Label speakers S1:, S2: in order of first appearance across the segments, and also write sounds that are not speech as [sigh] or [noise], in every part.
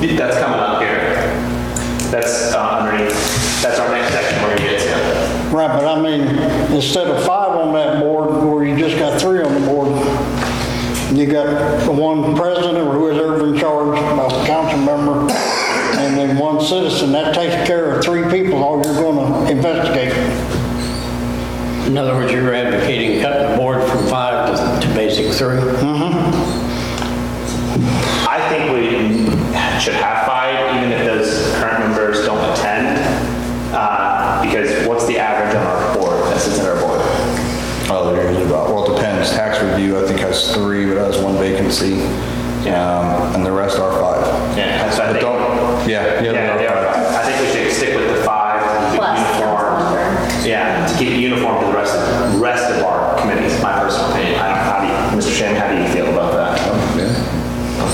S1: The- That's coming up here. That's uh, underneath, that's our next section where you get to.
S2: Right, but I mean, instead of five on that board, or you just got three on the board, you got the one president or whoever in charge, a council member, and then one citizen, that takes care of three people, all you're gonna investigate.
S3: In other words, you're advocating cutting the board from five to, to basic three?
S1: I think we should have five, even if those current members don't attend, uh, because what's the average on our board, that sits in our board?
S4: Oh, they're usually about, well, it depends. Tax review, I think has three, but has one vacancy. Um, and the rest are five.
S1: Yeah, that's what I
S4: But
S1: think.
S4: don't, yeah, yeah,
S1: Yeah, they
S4: they are
S1: are.
S4: five.
S1: I think we should stick with the five. keep it
S5: Plus,
S1: Uniform. Yeah, to keep it uniform to the rest of, rest of our committees, my personal opinion. I don't, how do you, Mr. Shannon, how do you feel about that?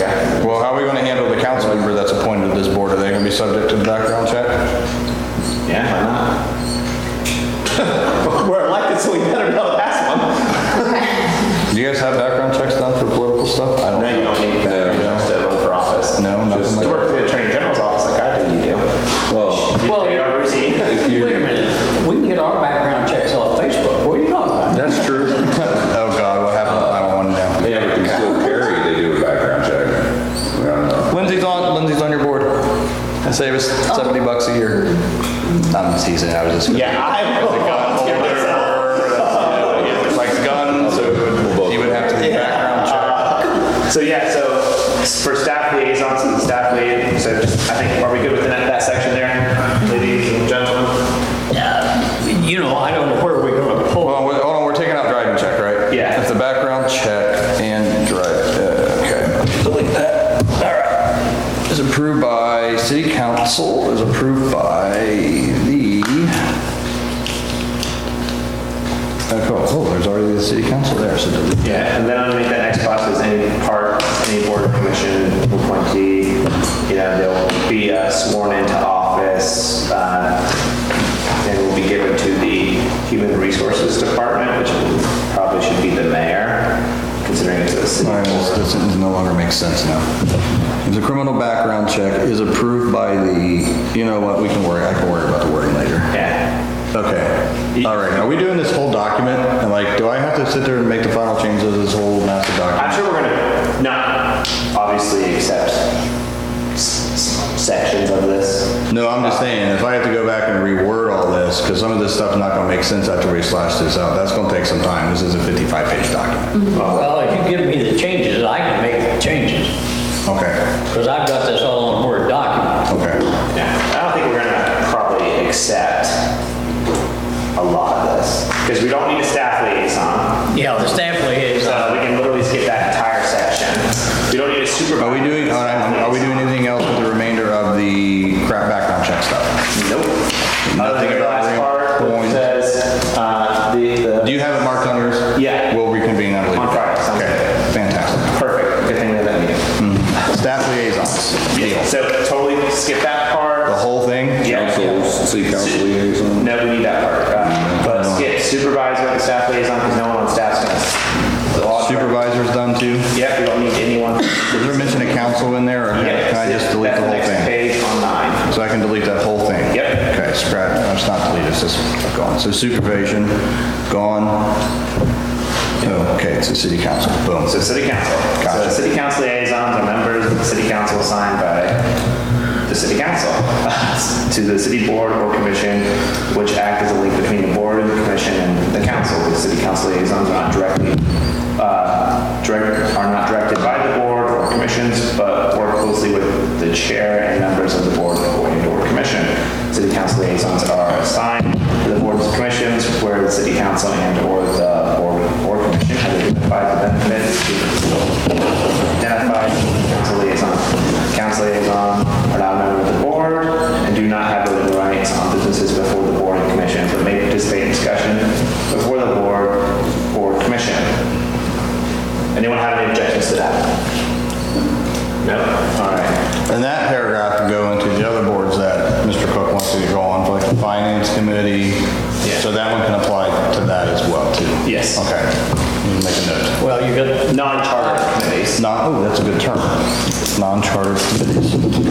S1: Okay.
S4: Well, how are we gonna handle the council member that's appointed to this board? Are they gonna be subject to the background check?
S1: Yeah, why not? [laughs] We're elected, so we better be able to pass one.
S4: Do you guys have background checks done for political stuff? I don't.
S1: No, you don't need that, you don't have to run for office.
S4: No, nothing
S1: Just
S4: like
S1: to work for the attorney general's office like I do, you do.
S6: Well,
S1: You pay our routine.
S3: Wait a minute, we can get our background checks off Facebook, what are you talking about?
S6: that's true.
S4: [laughs] Oh, God, what happened? I don't want to know.
S6: Yeah, but you still carry, they do a background check. I don't know.
S4: Lindsay's on, Lindsay's on your board. Save us 70 bucks a year. I'm teasing, I was just.
S1: Yeah, I will volunteer myself.
S4: Like guns, so you would have to be background check.
S1: So yeah, so for staff liaisons and staff lead, so just, I think, are we good with that, that section there, ladies and gentlemen?
S3: You know, I don't know where we're gonna pull.
S4: Well, wait, hold on, we're taking out driving check, right?
S1: Yeah.
S4: It's the background check and drive, uh, okay. Delete that. All right. Is approved by city council, is approved by the... Oh, cool. Oh, there's already the city council there, so delete
S1: Yeah, and then underneath that next box is any part, any board or commission appointee, you know, they'll be uh, sworn into office, uh, and will be given to the Human Resources Department, which probably should be the mayor, considering it's a city.
S4: All right, this, this sentence no longer makes sense now. If the criminal background check is approved by the, you know what, we can worry, I can worry about the wording later.
S1: Yeah.
S4: Okay, all right, are we doing this whole document? And like, do I have to sit there and make the final changes of this whole massive document?
S1: I'm sure we're gonna not obviously accept s- s- sections of this.
S4: No, I'm just saying, if I have to go back and reword all this, because some of this stuff's not gonna make sense after we slash this out, that's gonna take some time, this is a 55-page
S1: Mm-hmm.
S4: document.
S3: Well, if you give me the changes, I can make the changes,
S4: Okay,
S3: because I've got this all on Word document.
S4: okay.
S1: Yeah. I don't think we're gonna probably accept a lot of this, because we don't need a staff liaison.
S3: Yeah, the staff uh, liaison,
S1: So we can literally skip that entire section. We don't need a supervisor.
S4: Are we doing, all right, are we doing anything else with the remainder of the crap background check stuff?
S1: Nope. Other
S4: Nothing
S1: than the
S4: about
S1: last part that
S4: points.
S1: says, uh, the,
S4: Do
S1: the,
S4: you have it marked on yours?
S1: Yeah.
S4: We'll reconvene on it later.
S1: On Friday, sounds
S4: Okay, fantastic.
S1: perfect, good thing we have that meeting.
S4: Staff liaisons, Mm, deal.
S1: So totally skip that
S4: The
S1: part.
S4: whole thing?
S1: Yeah.
S6: Councils, city council liaison.
S1: No, we need that part.
S4: Mm,
S1: Uh, But skip supervisor and staff liaison, because no one on staff's gonna.
S4: Supervisor's done too?
S1: Yep, we don't need anyone.
S4: Is there a mention of council in there, or
S1: Yep,
S4: can I just delete
S1: that's
S4: the whole
S1: next
S4: thing?
S1: Page on nine.
S4: So I can delete that whole thing?
S1: Yep.
S4: Okay, scratch, no, it's not deleted, it's just gone. So supervision, gone. Okay, it's the city council, boom.
S1: So city council. So
S4: Gotcha.
S1: city council liaisons are members of the city council assigned by the city council [laughs] to the city board or commission, which act as a link between the board and the commission and the council. The city council liaisons are not directly, uh, direct, are not directed by the board or commissions, but work closely with the chair and members of the board or and or commission. City council liaisons are assigned to the boards and commissions where the city council and or the board or commission have identified the benefits identified council liaison. Council liaison are not a member of the board and do not have voting rights on businesses before the board and commission, but may participate in discussion before the board or commission. Anyone have any objections to that? No? All right.
S4: And that paragraph can go into the other boards that Mr. Cook wants to go on, like the finance committee.
S1: Yeah.
S4: So that one can apply to that as well, too?
S1: Yes.
S4: Okay. Let me Make a note.
S3: well, you got
S1: Non-charter committees.
S4: Non, oh, that's a good term. Non-charter committees.